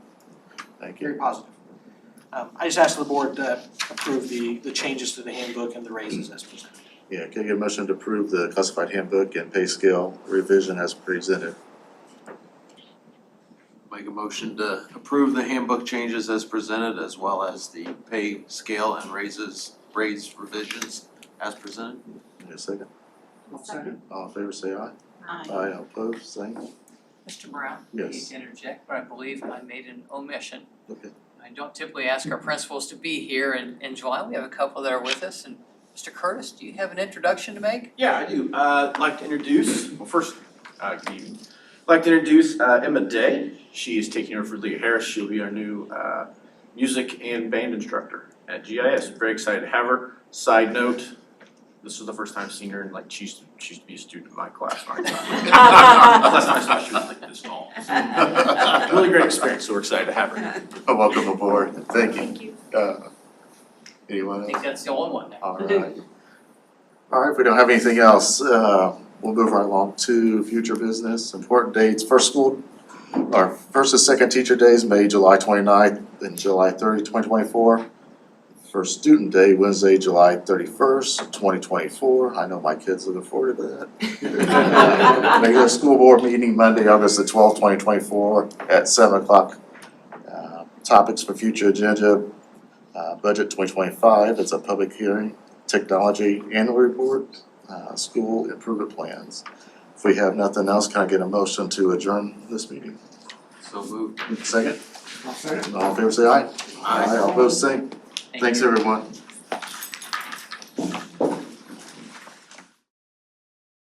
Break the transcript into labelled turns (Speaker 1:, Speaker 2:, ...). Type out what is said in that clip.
Speaker 1: Thank
Speaker 2: very
Speaker 1: you.
Speaker 2: positive. Um, I just ask the board to approve the, the changes to the handbook and the raises as presented.
Speaker 1: Yeah, can I get a motion to approve the classified handbook and pay scale revision as presented?
Speaker 3: Make a motion to approve the handbook changes as presented as well as the pay scale and raises, raise revisions as presented.
Speaker 1: Need a second?
Speaker 4: Second.
Speaker 1: All in favor, say aye.
Speaker 4: Aye.
Speaker 1: Aye, all opposed, same.
Speaker 5: Mr. Brown? I
Speaker 1: Yes.
Speaker 5: Need to interject, but I believe I made an omission.
Speaker 1: Okay.
Speaker 5: I don't typically ask our principals to be here in in July. We have a couple that are with us and Mr. Curtis, do you have an introduction to make?
Speaker 6: Yeah, I do. Uh, I'd like to introduce, well, first, uh, good evening. I'd like to introduce uh, Emma Day. She is taking over for Leah Harris. She'll be our new uh, music and band instructor at GIS. Very excited to have her. Side note, this was the first time seeing her, and like she used to, she used to be a student in my class. Last time I saw her, she was like this tall. So, Really great experience, so we're excited to have her.
Speaker 1: Welcome aboard, thank you.
Speaker 4: Thank you.
Speaker 1: Uh, anyone
Speaker 5: I
Speaker 1: else?
Speaker 5: think that's the only one now.
Speaker 1: Alright. Alright, if we don't have anything else, uh, we'll move right along to future business, important dates, first school, our first and second teacher days, May, July 29th and July 30th, 2024. First student day, Wednesday, July thirty-first, twenty twenty-four, I know my kids looking forward to that. Regular school board meeting Monday, August the twelfth, twenty twenty-four at seven o'clock. Uh, Topics for future agenda, uh, budget twenty twenty-five, it's a public hearing, technology annual report, uh, school improvement plans. If we have nothing else, can I get a motion to adjourn this meeting?
Speaker 3: So moved.
Speaker 1: Second? All in favor, say aye.
Speaker 3: Aye.
Speaker 1: All opposed, say.
Speaker 5: Thank
Speaker 1: Thanks,
Speaker 5: you.
Speaker 1: everyone.